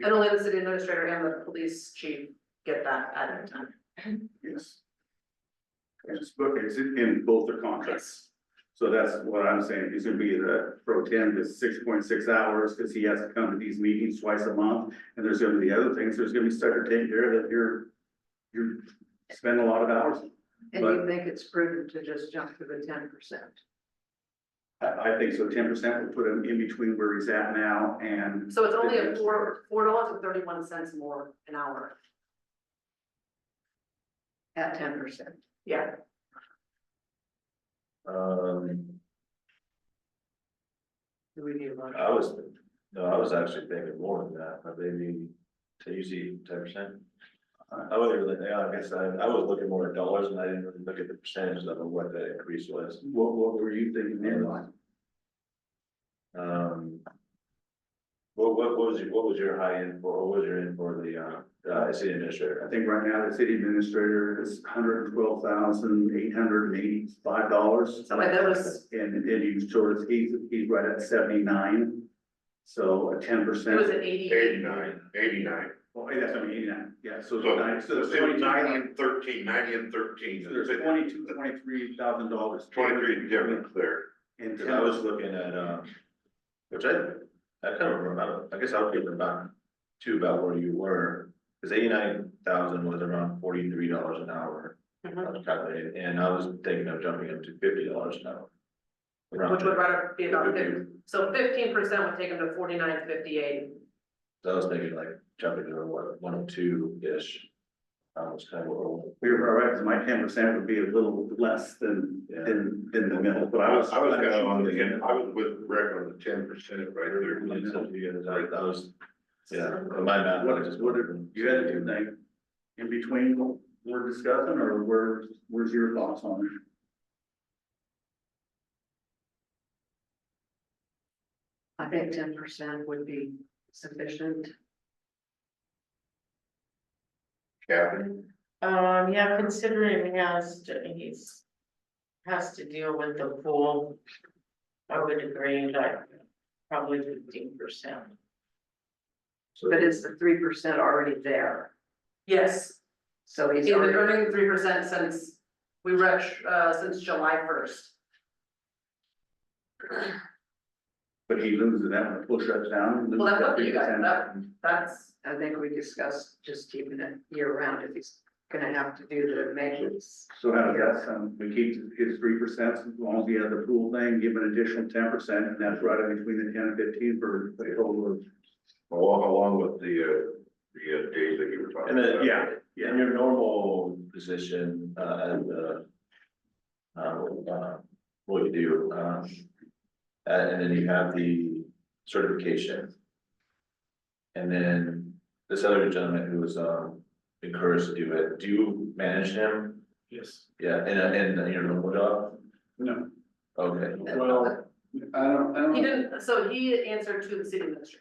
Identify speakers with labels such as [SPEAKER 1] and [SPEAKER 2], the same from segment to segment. [SPEAKER 1] And only the city administrator and the police chief get that at any time.
[SPEAKER 2] Yes. Yes, okay, it's in in both their contracts. So that's what I'm saying, he's gonna be the pro temp is six point six hours, cause he has to come to these meetings twice a month. And there's gonna be other things, there's gonna be stuff to take care of that you're, you're spending a lot of hours.
[SPEAKER 3] And you think it's prudent to just jump to the ten percent?
[SPEAKER 2] I, I think so, ten percent will put him in between where he's at now and
[SPEAKER 1] So it's only a four, four dollars and thirty-one cents more an hour.
[SPEAKER 3] At ten percent?
[SPEAKER 1] Yeah,
[SPEAKER 4] Um,
[SPEAKER 3] Do we need one?
[SPEAKER 4] I was, no, I was actually thinking more than that, but maybe to usually ten percent. I wasn't really, yeah, I guess I, I was looking more at dollars and I didn't really look at the percentage level, what the increase was.
[SPEAKER 2] what, what were you thinking there?
[SPEAKER 4] Um. What, what was your, what was your high end for, what was your end for the, uh, uh, city
[SPEAKER 2] I
[SPEAKER 4] administrator?
[SPEAKER 2] think right now the city administrator is hundred and twelve thousand, eight hundred and eighty-five dollars.
[SPEAKER 1] so like that was,
[SPEAKER 2] And then you sort of, he's, he's right at seventy-nine, so a ten
[SPEAKER 1] it was
[SPEAKER 2] percent.
[SPEAKER 1] an eighty.
[SPEAKER 5] Eighty-nine, eighty-nine,
[SPEAKER 2] Well, that's, I mean, eighty-nine, yeah, so it's
[SPEAKER 5] So-
[SPEAKER 2] nine, so
[SPEAKER 5] so
[SPEAKER 2] it's
[SPEAKER 5] say ninety
[SPEAKER 2] twenty-nine,
[SPEAKER 5] and thirteen, ninety and thirteen,
[SPEAKER 2] so there's twenty-two, twenty-three thousand dollars.
[SPEAKER 5] twenty-three difference there.
[SPEAKER 2] And
[SPEAKER 4] Cause I was
[SPEAKER 2] ten,
[SPEAKER 4] looking at, um, which I, I kind of remember, I guess I was thinking about, too, about where you were. Cause eighty-nine thousand was around forty-three dollars an hour, I
[SPEAKER 1] Mhm.
[SPEAKER 4] was calculating, and I was thinking of jumping up to fifty dollars an hour. Around
[SPEAKER 1] Which would
[SPEAKER 4] there.
[SPEAKER 1] rather be about
[SPEAKER 4] Would be-
[SPEAKER 1] fifty, so fifteen percent would take them to forty-nine fifty-eight.
[SPEAKER 4] So I was thinking like jumping to what, one oh two-ish. That was kind of what,
[SPEAKER 2] we
[SPEAKER 4] we're-
[SPEAKER 2] were all right, 'cause my ten percent would be a little less than,
[SPEAKER 4] Yeah.
[SPEAKER 2] than, than the middle, but
[SPEAKER 5] I
[SPEAKER 2] I was.
[SPEAKER 5] was, I was gonna on the, end. I was with Rick on the ten percent right there.
[SPEAKER 4] Like, so you guys, that that was, yeah, but my math, I just.
[SPEAKER 2] What- You had anything in between what we're discussing, or where, where's your thoughts on it?
[SPEAKER 3] I think ten percent would be sufficient.
[SPEAKER 5] Kevin,
[SPEAKER 6] Um, yeah, considering he has to, he's, has to deal with the pool. I would agree, like, probably fifteen percent.
[SPEAKER 3] But is the three percent already there?
[SPEAKER 1] Yes,
[SPEAKER 3] So he's
[SPEAKER 1] he's been
[SPEAKER 3] already,
[SPEAKER 1] earning three percent since we rush, uh, since July first.
[SPEAKER 2] But he loses that, when the push ups down.
[SPEAKER 1] Well, that's up to you guys,
[SPEAKER 2] 3%.
[SPEAKER 1] that, that's,
[SPEAKER 3] I think we discussed just keeping it year round if he's gonna have to do the maintenance.
[SPEAKER 2] So how does that sound? We keep his three percent, as long as he has the pool thing, give an additional ten percent, and that's right in between the ten and fifteen for the total of.
[SPEAKER 5] along, along with the, uh, the uh, days that you were talking
[SPEAKER 4] And then,
[SPEAKER 5] about.
[SPEAKER 4] yeah, in your normal position, uh, and, uh. Uh, uh, what you do, um. uh, and then you have the certification. And then this other gentleman who was, um, encouraged to do it, do you manage him?
[SPEAKER 2] Yes.
[SPEAKER 4] Yeah, and, and your normal job?
[SPEAKER 2] No,
[SPEAKER 4] Okay,
[SPEAKER 2] well, I don't, I
[SPEAKER 1] he
[SPEAKER 2] don't,
[SPEAKER 1] didn't, so he answered to the city administrator,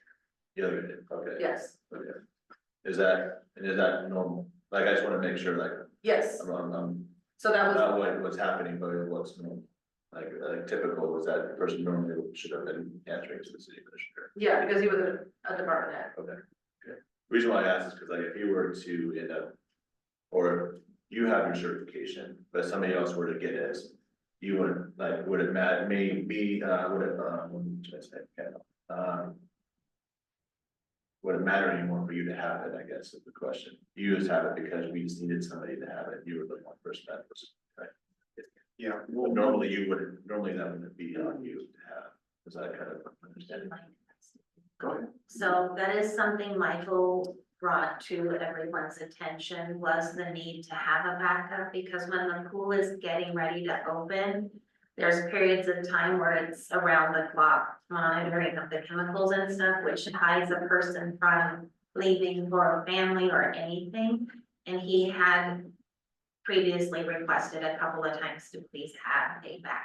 [SPEAKER 4] yeah, okay.
[SPEAKER 1] yes,
[SPEAKER 4] Okay. Is that, and is that normal? Like, I just wanna make sure, like,
[SPEAKER 1] yes,
[SPEAKER 4] I'm, I'm- I'm,
[SPEAKER 1] so that was.
[SPEAKER 4] not what was happening, but it was normal. Like, like typical, was that the person normally should have been answering to the city administrator.
[SPEAKER 1] Yeah, because he was a, a department head.
[SPEAKER 4] Reason why I ask is because like, if you were to end up, or you have your certification, but somebody else were to get it, you wouldn't, like, would it matter, maybe, uh, would it, um, what am I trying to say? Yeah, um, would it matter anymore for you to have it, I guess, is the question. You just have it because we just needed somebody to have it. You were the one person that was
[SPEAKER 2] yeah,
[SPEAKER 4] well, normally you wouldn't, normally that wouldn't be on you to have, is that kind of understanding? Go ahead.
[SPEAKER 7] So that is something Michael brought to everyone's attention was the need to have a backup because when the pool is getting ready to open. There's periods of time where it's around the clock monitoring of the chemicals and stuff, which hides a person from leaving for a family or anything. And he had previously requested a couple of times to please have a backup,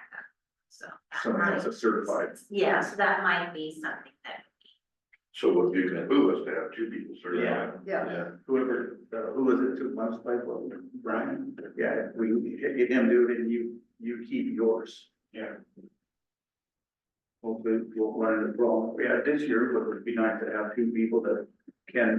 [SPEAKER 7] so. that
[SPEAKER 2] someone else
[SPEAKER 7] might-
[SPEAKER 2] is certified.
[SPEAKER 7] Yeah, so that might be something that
[SPEAKER 5] So if you can move us to have two people certified.
[SPEAKER 3] Yeah,
[SPEAKER 4] Yeah,
[SPEAKER 2] Whoever, uh, who was it, two months by, well, Brian? Yeah, we, get him do it and you, you keep yours. Yeah. Hopefully, we won't run into problems. We had this year, but it'd be nice to have two people that can